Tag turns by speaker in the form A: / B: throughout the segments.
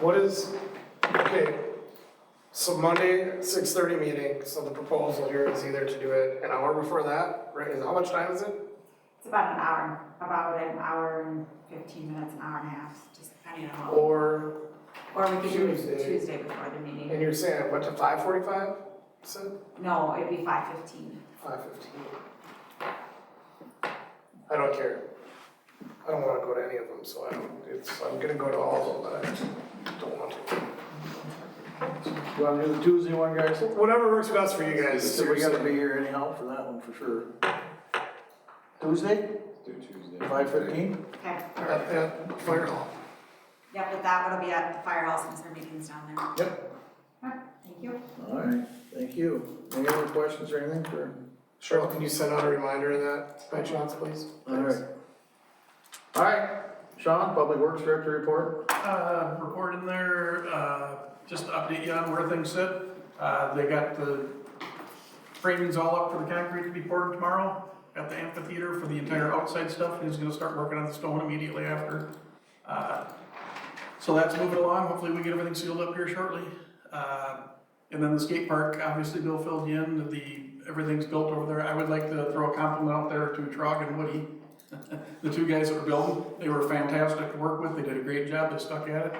A: What is, okay, so Monday, six thirty meeting, so the proposal here is either to do it an hour before that, right, is, how much time is it?
B: It's about an hour, about an hour and fifteen minutes, an hour and a half, just depending on how.
A: Or,
B: Or we could do
A: Tuesday.
B: it Tuesday before the meeting.
A: and you're saying, what, to five forty-five, said,
B: No, it'd be five fifteen.
A: five fifteen? I don't care, I don't wanna go to any of them, so I don't, it's, I'm gonna go to all of them, but I don't want to.
C: You wanna do the Tuesday one, guys?
A: Whatever works best for you guys,
C: So we gotta
A: seriously.
C: be here anyhow for that one for sure. Tuesday,
D: Do Tuesday.
C: five fifteen?
B: Okay.
A: At, at Fire Hall.
B: Yeah, but that one will be at the firehouse since our meeting's down there.
A: Yep.
B: Alright, Thank you.
C: Alright, thank you. Any other questions or anything for?
A: Cheryl, can you send out a reminder of that by chance, please?
C: Alright. Alright, Sean, Public Works Director report.
E: Uh, report in there, uh, just to update you on where things sit. Uh, they got the framings all up for the concrete to be poured tomorrow at the amphitheater for the entire outside stuff. He's gonna start working on the stone immediately after. Uh, So that's moving along. Hopefully we get everything sealed up here shortly. Uh, and then the skate park, obviously Bill filled you in, the, everything's built over there. I would like to throw a compliment out there to Trog and Woody. The two guys that were building, they were fantastic to work with, they did a great job, they stuck at it.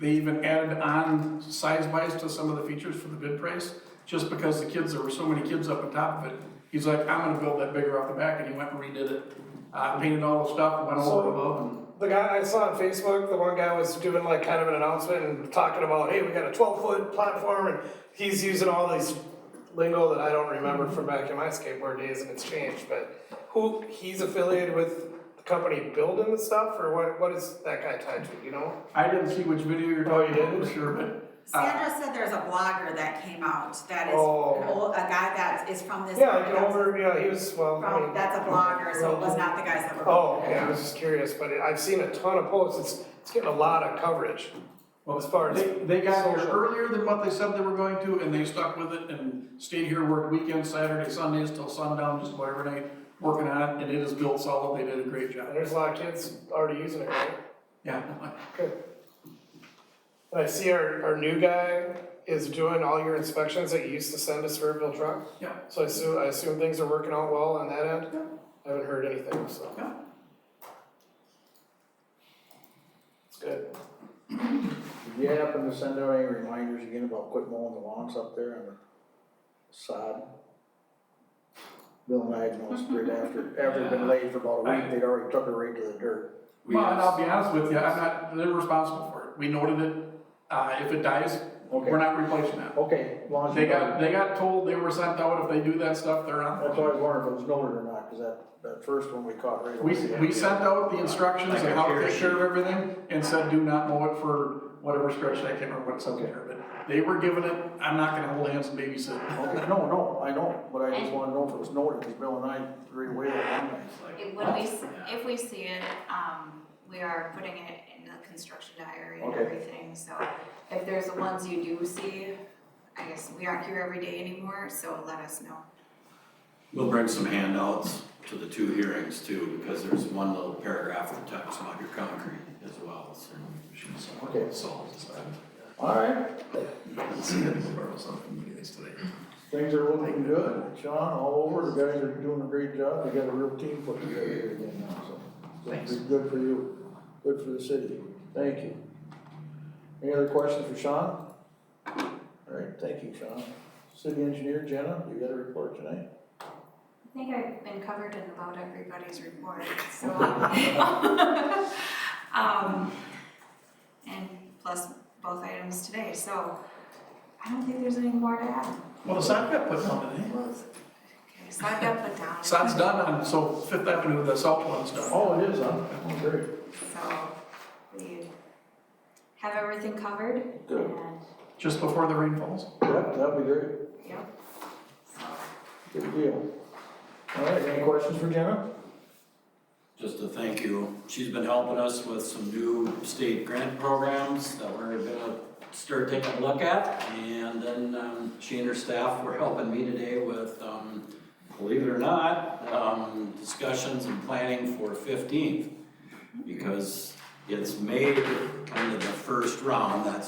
E: They even added on size-wise to some of the features for the bid price, just because the kids, there were so many kids up on top of it. He's like, I'm gonna build that bigger off the back, and he went and redid it, uh, painted all the stuff, went all over the above, and
A: The guy I saw on Facebook, the one guy was doing like kind of an announcement and talking about, hey, we got a twelve foot platform and he's using all these lingo that I don't remember from back in my skateboard days and it's changed, but who, he's affiliated with the company building the stuff or what, what is that guy tied to, you know?
E: I didn't see which video you're
A: Oh, you
E: talking about,
A: didn't?
E: for sure, but.
B: Sandra said there's a blogger that came out that is, an
A: Uh, Oh.
B: old- a guy that is from this.
A: Yeah, I can over, yeah, he was, well, I
B: From,
A: mean.
B: that's a blogger, so it was not the guys that were.
A: Oh, okay, I was just curious, but I've seen a ton of posts, it's, it's getting a lot of coverage.
E: Well,
A: As far as
E: They, they got here
A: social.
E: earlier than what they said they were going to, and they stuck with it and stayed here, worked weekends, Saturday, Sundays till sundown, just about every night, working on it, and it is built solid, they did a great
A: And
E: job.
A: there's a lot of kids already using it, right?
E: Yeah,
A: Good. And I see our, our new guy is doing all your inspections that you used to send to Sperrville Truck.
E: yeah,
A: So I assume, I assume things are working out well on that end? I haven't heard anything, so.
E: Yeah.
A: It's good.
C: Did you happen to send out any reminders again about quit mowing the lawns up there and the sod? Bill Magnus, right after, after it'd been laid for about a week, they'd already took it right to the dirt.
D: We
E: well, and I'll
D: have,
E: be honest with you, I'm not, they're responsible for it, we noted it, uh, if it dies, we're
C: Okay,
E: not replacing that.
C: okay, long as you
E: They
C: know.
E: got, they got told they were sent out, if they do that stuff, they're on.
C: That's why I was wondering if it was noted or not, because that, that first one we caught right away.
E: We, we sent out the instructions and how to take care of everything and said, do not mow it for whatever stretch, I can't remember what it said there, but they were given it, I'm not gonna hold hands and babysit.
C: Okay, no, no, I know, but I just wanna know if it was noted, because Bill and I right away were on that.
F: If- When we, s- if we see it, um, we are putting it in the construction diary and
C: Okay.
F: everything, so if there's the ones you do see, I guess we aren't here every day anymore, so let us know.
D: we'll bring some handouts to the two hearings too, because there's one little paragraph that talks about your concrete as well, so. we should solve-
C: Okay.
D: Solve this. I
C: All right,
D: haven't seen it before, so I'm gonna do this today.
C: things are looking good, Sean, all over, the guys are doing a great job, they got a real team put together here again now, so. so it's
D: Thanks.
C: Good for you, good for the city, thank you. Any other questions for Sean? All right, thank you, Sean. City engineer, Jenna, you got a report tonight?
F: I think I've been covered in about everybody's report, so. Um, and plus both items today, so I don't think there's any more to add.
E: Well, the sod got put eh? down today.
F: Well, it's- Okay, so I've got put down.
E: Sod's done on, so Fifth Avenue, the south one's done.
C: Oh, it is, huh? Oh, great.
F: So we have everything covered
C: Good.
F: and,
E: just before the rain falls.
C: Yep, that'd be great.
F: yep. So
C: Good deal. All right, any questions for Jenna?
D: Just to thank you, she's been helping us with some new state grant programs that we're gonna start taking a look at. And then, um, she and her staff were helping me today with, um, believe it or not, um, discussions and planning for fifteenth. Because It's made kind of the first round, that's